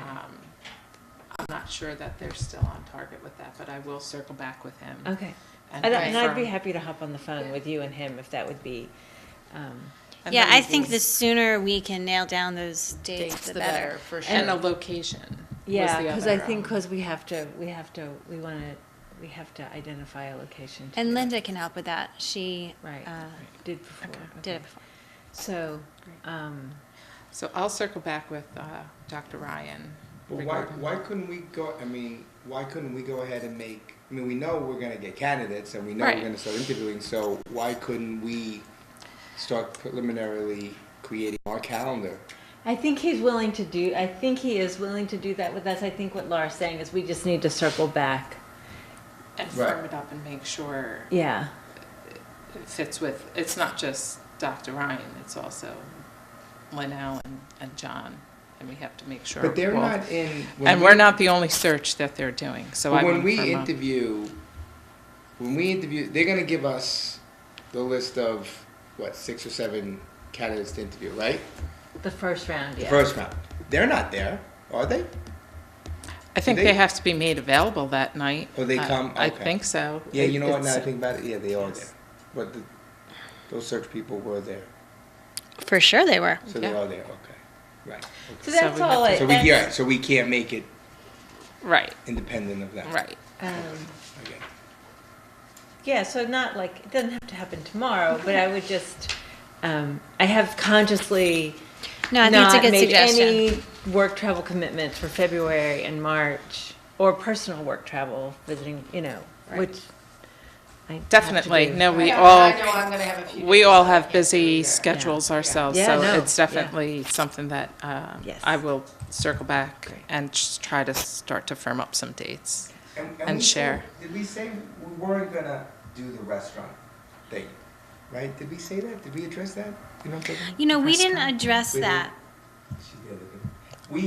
Um, I'm not sure that they're still on target with that, but I will circle back with him. Okay. and And, Uh, I- and I'd confirm. be happy to hop on the phone with you and him if that would be. Um, And Yeah, the I think the reasons. sooner we can nail down those dates, Dates, the better. for And the sure. location. was yeah, the because other, I think um, because we have to, we have to, we want to, we have to identify a location. to And do it. Linda can help with that. She Right. uh, did before. did it okay. before. So, um, So I'll circle back with uh, Dr. Ryan. But why, regarding- why couldn't we go, I mean, why couldn't we go ahead and make, I mean, we know we're gonna get candidates and we know Right. we're gonna start interviewing, so why couldn't we start preliminarily creating our calendar? I think he's willing to do, I think he is willing to do that with us. I think what Laura's saying is we just need to circle back. And Right. firm it up and make sure Yeah. it fits with, it's not just Dr. Ryan, it's also Linnell and, and John. And we have to make sure. But they're we'll- not in. when And we- we're not the only search that they're doing, so I But would when we firm up. interview, when we interview, they're gonna give us the list of, what, six or seven candidates to interview, right? The first round, The yeah. first round. They're not there, are they? I think They- they have to be made available that night. Oh, they I- come? I Okay. think so. Yeah, you know what, now It's- that I think about it, yeah, they are Yes. there. But the, those search people were there, For sure they were. so they Yeah. are there, okay, right. So So that's we have all. to- I- So we, yeah, that's- so we can't make it Right, independent of that. right. um, I get it. Yeah, so not like, it doesn't have to happen tomorrow, but I would just, um, I have consciously No, I think it's a not good made suggestion. any work travel commitments for February and March, or personal work travel, visiting, you know, Right. which I have to Definitely, do. no, we I know- all. I know I'm gonna have a few We days all that I have can't be busy there. schedules Yeah. ourselves, Yeah, so no, it's yeah. definitely something that uh, Yes. I will circle back Great. and s- try to start to firm up some dates. And we share. said- Did we say we weren't gonna do the restaurant thing, right? Did we say that? Did we address that? You know what I'm talking You know, we First didn't time. address We didn't. that. about? She's the other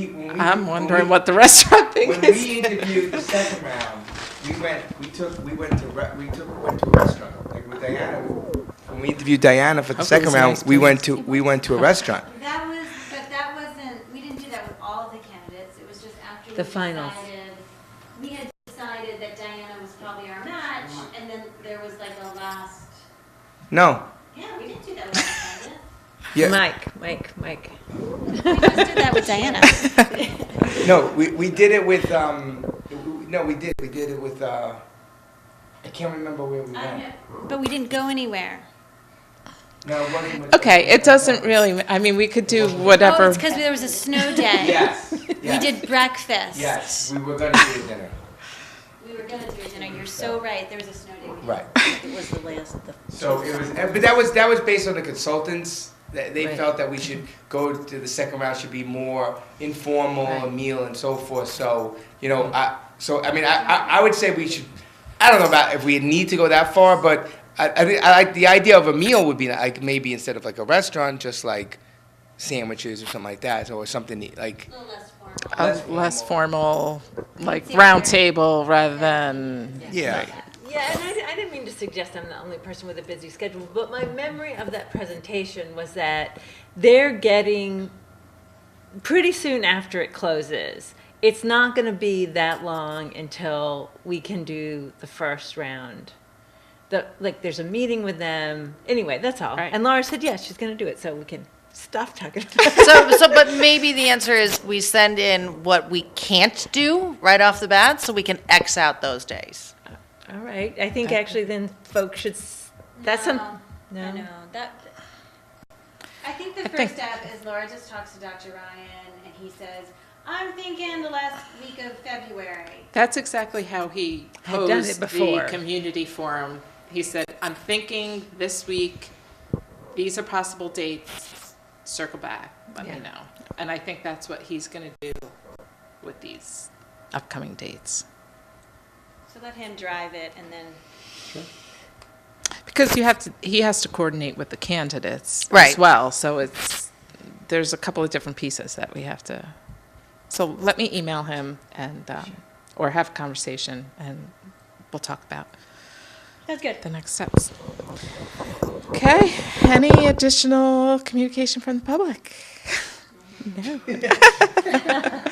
thing. We, when we. I'm when wondering we- what the restaurant thing When we is. interviewed the second round, we went, we took, we went to, re- we took, went to a restaurant, like with Diana. When we interviewed Diana for the Hopefully second it's round, nice we place. went to, we went to a restaurant. That was, but that wasn't, we didn't do that with all of the candidates, it was just after we The finals. decided. We had decided that Diana was probably our match, and then there was like a last, No, yeah, we didn't do that with the yeah, Mike, Mike, Mike. We just did that with Diana. no, we, we did it with, um, we- no, we did, we did it with, uh, I can't remember where we candidates. I went. don't know. But we didn't go anywhere. No, it wasn't with. Okay, it doesn't really, I mean, we could do Oh, whatever. it's because there was a snow day. Yes, We yes, did breakfast. Yes, we were gonna do the dinner, We were gonna do a dinner, you're so right, there was a snow day. we did. right. It was the last of the. So it was, eh, but that was, that was based on the consultants, that they Right. felt that we should go to the second round should be more informal, a Right. meal and so forth, so, you know, I, so, I mean, I, I, I would say we should, I don't know about if we need to go that far, but I, I think, I like, the idea of a meal would be like, maybe instead of like a restaurant, just like sandwiches or something like that, or something like, A little less formal. A less formal, like round table rather than, yeah. Yeah, and I, I didn't mean to suggest I'm the only person with a busy schedule, but my memory of that presentation was that they're getting pretty soon after it closes. It's not going to be that long until we can do the first round. The, like, there's a meeting with them. Anyway, that's all. Right. And Laura said, yes, she's going to do it, so we can stop talking about it. So, so, but maybe the answer is we send in what we can't do right off the bat, so we can X out those days. All right. I think actually then folks should. s- That's some. No, No. I know, that, I think the think- first step is Laura just talks to Dr. Ryan, and he says, I'm thinking the last week of February. that's exactly how he Had done it posed before. the community forum. He said, I'm thinking this week, these are possible dates, circle back, let me Yeah. know. And I think that's what he's going to do with these upcoming dates. So let him drive it and then. Because you have to, he has to coordinate with the candidates as Right. well. So it's, there's a couple of different pieces that we have to, so let me email him and, um, or have a conversation and we'll talk about That's good. the next steps. Okay, any additional communication from the public? No.